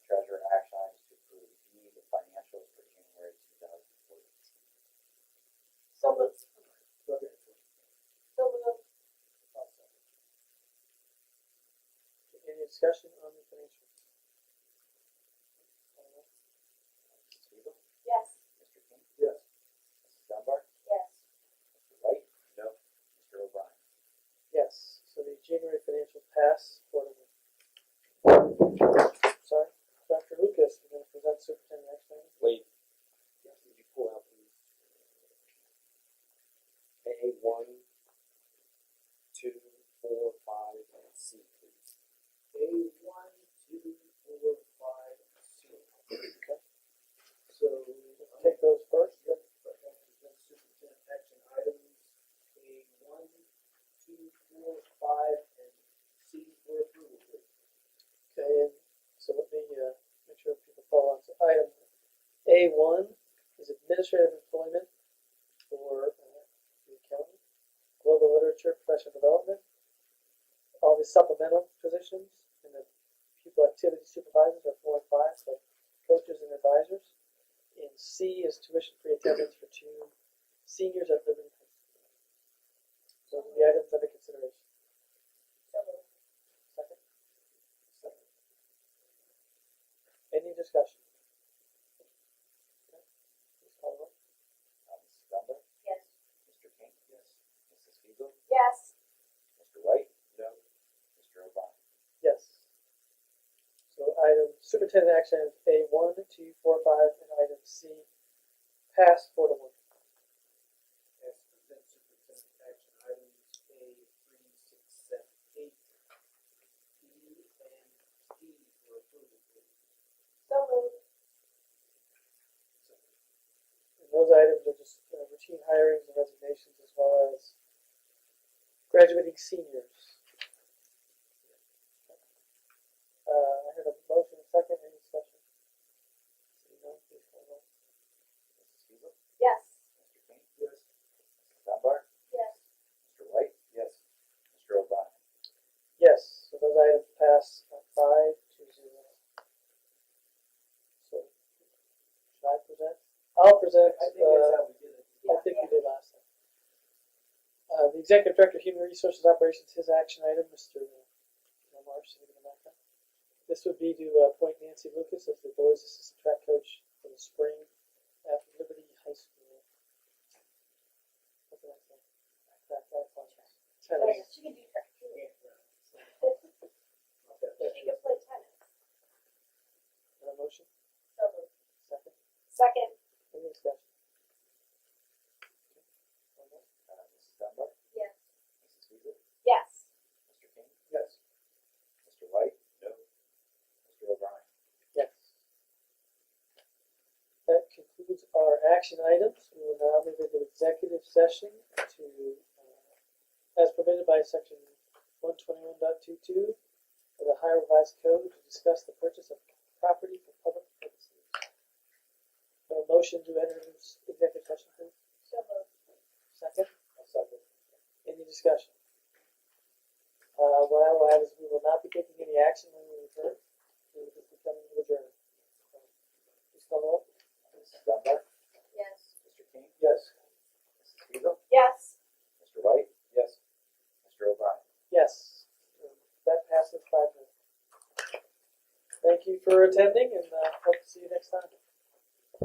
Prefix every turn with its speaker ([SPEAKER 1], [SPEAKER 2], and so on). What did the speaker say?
[SPEAKER 1] E,
[SPEAKER 2] discussion on the financial?
[SPEAKER 1] Mrs. Weaver,
[SPEAKER 3] Yes.
[SPEAKER 1] Mr. King,
[SPEAKER 2] Yes.
[SPEAKER 1] Mrs. Dunbar,
[SPEAKER 3] Yes.
[SPEAKER 1] Mr. White. No. Mr. O'Brien.
[SPEAKER 2] Yes, so the January financial pass for the. Sorry, Dr. Lucas, you're gonna present superintendent action items?
[SPEAKER 4] Wait. Yes, would you pull out the A one, two, four, five, and C, please?
[SPEAKER 2] A one, two, four, five, six. Okay. So take those first. Yep. Superintendent action items, A one, two, four, five, and C for approval. Okay, and so let me, uh, make sure people follow on to item A one is administrative employment for, uh, the county, global literature, professional development, all the supplemental positions and the pupil activity supervisors are four and five, so coaches and advisors. And C is tuition free attendance for two seniors at Liberty High School. So the items under consideration.
[SPEAKER 3] So moved.
[SPEAKER 2] Second? Second. Any discussion? Okay. Please call the roll.
[SPEAKER 1] Uh, Mrs. Dunbar,
[SPEAKER 3] Yes.
[SPEAKER 1] Mr. King. Yes. Mrs. Weaver,
[SPEAKER 3] Yes.
[SPEAKER 1] Mr. White.
[SPEAKER 4] No.
[SPEAKER 1] Mr. O'Brien.
[SPEAKER 2] Yes. So item superintendent action items A one, two, four, five, and item C pass four to one.
[SPEAKER 5] as present superintendent action items A three, six, seven, eight, E and D for approval, please.
[SPEAKER 3] So moved.
[SPEAKER 2] And those items are just uh, routine hirings and resignations as well as graduating seniors. Uh, I heard a motion, a second, any discussion? Seeing none, please call the roll.
[SPEAKER 1] Mrs. Weaver,
[SPEAKER 3] Yes.
[SPEAKER 1] Mr. King,
[SPEAKER 5] Yes.
[SPEAKER 1] Mrs. Dunbar,
[SPEAKER 3] Yes.
[SPEAKER 1] Mr. White. Yes. Mr. O'Brien.
[SPEAKER 2] Yes, so those items pass uh, five to zero. So, should I present? I'll present,
[SPEAKER 5] I think that's
[SPEAKER 2] uh,
[SPEAKER 5] how we did it.
[SPEAKER 2] I think we did last time. Uh, the executive director of human resources operations, his action item, Mr. Marsh, anything about that? This would be to uh, appoint Nancy Lucas as the boys assistant track coach for the spring at Liberty High School. What did I say? Track, track, track. Tennis.
[SPEAKER 3] She can do that too.
[SPEAKER 5] Yeah, right. Not that bad.
[SPEAKER 3] She can play tennis.
[SPEAKER 2] Is there a motion?
[SPEAKER 3] So moved.
[SPEAKER 2] Second.
[SPEAKER 3] Second.
[SPEAKER 2] Any discussion?
[SPEAKER 1] Uh, Mrs. Dunbar,
[SPEAKER 3] Yes.
[SPEAKER 1] Mrs. Weaver,
[SPEAKER 3] Yes.
[SPEAKER 1] Mr. King,
[SPEAKER 2] Yes.
[SPEAKER 1] Mr. White. No. Mr. O'Brien.
[SPEAKER 2] Yes. That concludes our action items. We will now move into executive session to, uh, as permitted by section one twenty-one of the Ohio Revised Code to discuss the purchase of property for public purposes. A motion to enter into executive session, please.
[SPEAKER 3] So moved.
[SPEAKER 2] 2nd second. Any discussion? Uh, what I will add is we will not be taking any action when we return. We will just be coming to adjourn. Please call the roll.
[SPEAKER 1] Mrs. Dunbar,
[SPEAKER 3] Yes.
[SPEAKER 1] Mr. King,
[SPEAKER 2] Yes.
[SPEAKER 1] Mrs. Weaver,
[SPEAKER 3] Yes.
[SPEAKER 1] Mr. White. Yes. Mr. O'Brien.
[SPEAKER 2] Yes. That passes five minutes. Thank you for attending and, uh, hope